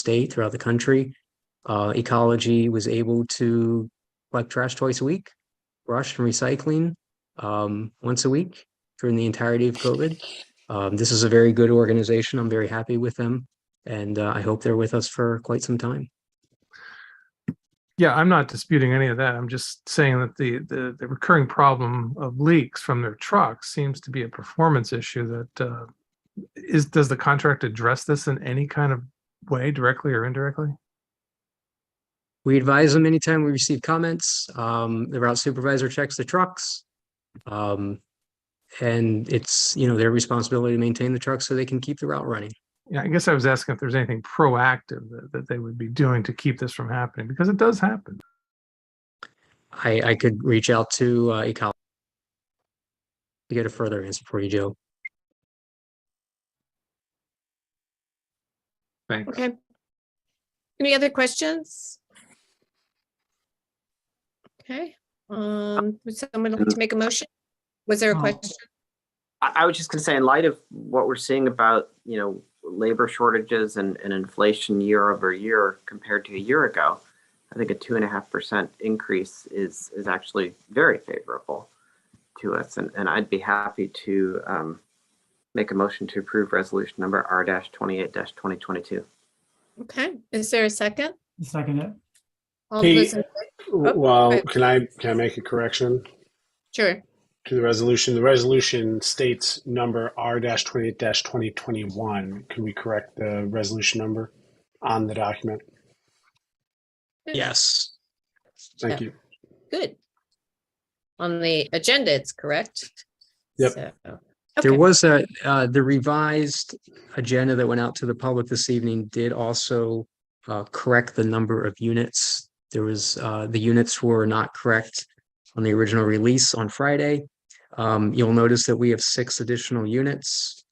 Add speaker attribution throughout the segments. Speaker 1: state, throughout the country. Uh, ecology was able to collect trash twice a week, brush and recycling um, once a week during the entirety of COVID. Um, this is a very good organization. I'm very happy with them, and uh, I hope they're with us for quite some time.
Speaker 2: Yeah, I'm not disputing any of that. I'm just saying that the, the, the recurring problem of leaks from their trucks seems to be a performance issue that, uh, is, does the contract address this in any kind of way, directly or indirectly?
Speaker 1: We advise them anytime we receive comments. Um, the route supervisor checks the trucks. Um, and it's, you know, their responsibility to maintain the trucks so they can keep the route running.
Speaker 2: Yeah, I guess I was asking if there's anything proactive that, that they would be doing to keep this from happening, because it does happen.
Speaker 1: I, I could reach out to, uh, Ecology to get a further answer for you, Joe.
Speaker 2: Thanks.
Speaker 3: Okay. Any other questions? Okay, um, would someone like to make a motion? Was
Speaker 4: Uh,
Speaker 3: there a
Speaker 5: Oh.
Speaker 3: question?
Speaker 5: I, I was just gonna say, in light of what we're seeing about, you know, labor shortages and, and inflation year over year compared to a year ago, I think a two and a half percent increase is, is actually very favorable to us. And, and I'd be happy to, um, make a motion to approve resolution number R twenty-eight twenty twenty-two.
Speaker 3: Okay, is there a second?
Speaker 4: Second it.
Speaker 3: All
Speaker 6: Hey.
Speaker 3: those, in- Oh,
Speaker 6: Well,
Speaker 3: right.
Speaker 6: can I, can I make a correction
Speaker 3: sure,
Speaker 6: to the resolution? The resolution states number R dash twenty-eight dash twenty twenty-one. Can we correct the resolution number on the document?
Speaker 1: Yes.
Speaker 6: Thank you.
Speaker 3: good. On the agenda, it's correct.
Speaker 6: Yep.
Speaker 3: So,
Speaker 1: There
Speaker 3: Okay.
Speaker 1: was a, uh, the revised agenda that went out to the public this evening did also, uh, correct the number of units. There was, uh, the units were not correct on the original release on Friday. Um, you'll notice that we have six additional units,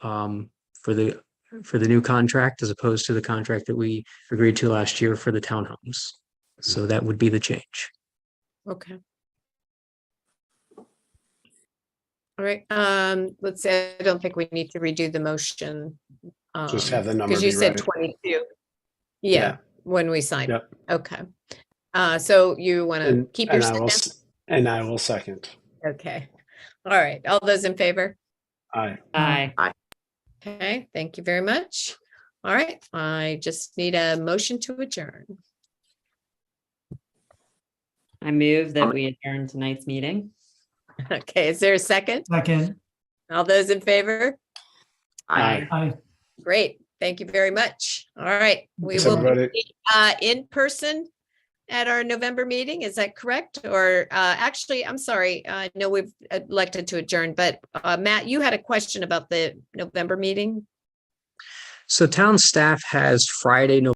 Speaker 1: um, for the, for the new contract as opposed to the contract that we agreed to last year for the townhomes. So that would be the change.
Speaker 3: Okay. All right, um, let's say, I don't think we need to redo the motion.
Speaker 6: Just
Speaker 3: um,
Speaker 6: have the number
Speaker 3: Because you
Speaker 6: be
Speaker 3: said
Speaker 6: right.
Speaker 3: twenty-two.
Speaker 6: Yeah.
Speaker 3: Yeah, when we signed.
Speaker 6: Yep.
Speaker 3: Okay. Uh, so you want to
Speaker 6: And-
Speaker 3: keep your
Speaker 6: and I will
Speaker 3: second?
Speaker 6: s- And I will second.
Speaker 3: Okay. All right. All those in favor?
Speaker 6: Aye.
Speaker 4: Aye.
Speaker 3: Okay, thank you very much. All right, I just need a motion to adjourn.
Speaker 7: I move that we adjourn tonight's meeting.
Speaker 3: Okay, is there a second?
Speaker 4: Second.
Speaker 3: All those in favor?
Speaker 6: Aye.
Speaker 4: Aye.
Speaker 3: Great. Thank you very much. All right, we
Speaker 6: Thanks,
Speaker 3: will be
Speaker 6: everybody.
Speaker 3: uh, in person at our November meeting. Is that correct? Or uh, actually, I'm sorry, I know we've uh, elected to adjourn, but uh, Matt, you had a question about the November meeting?
Speaker 1: So town staff has Friday, November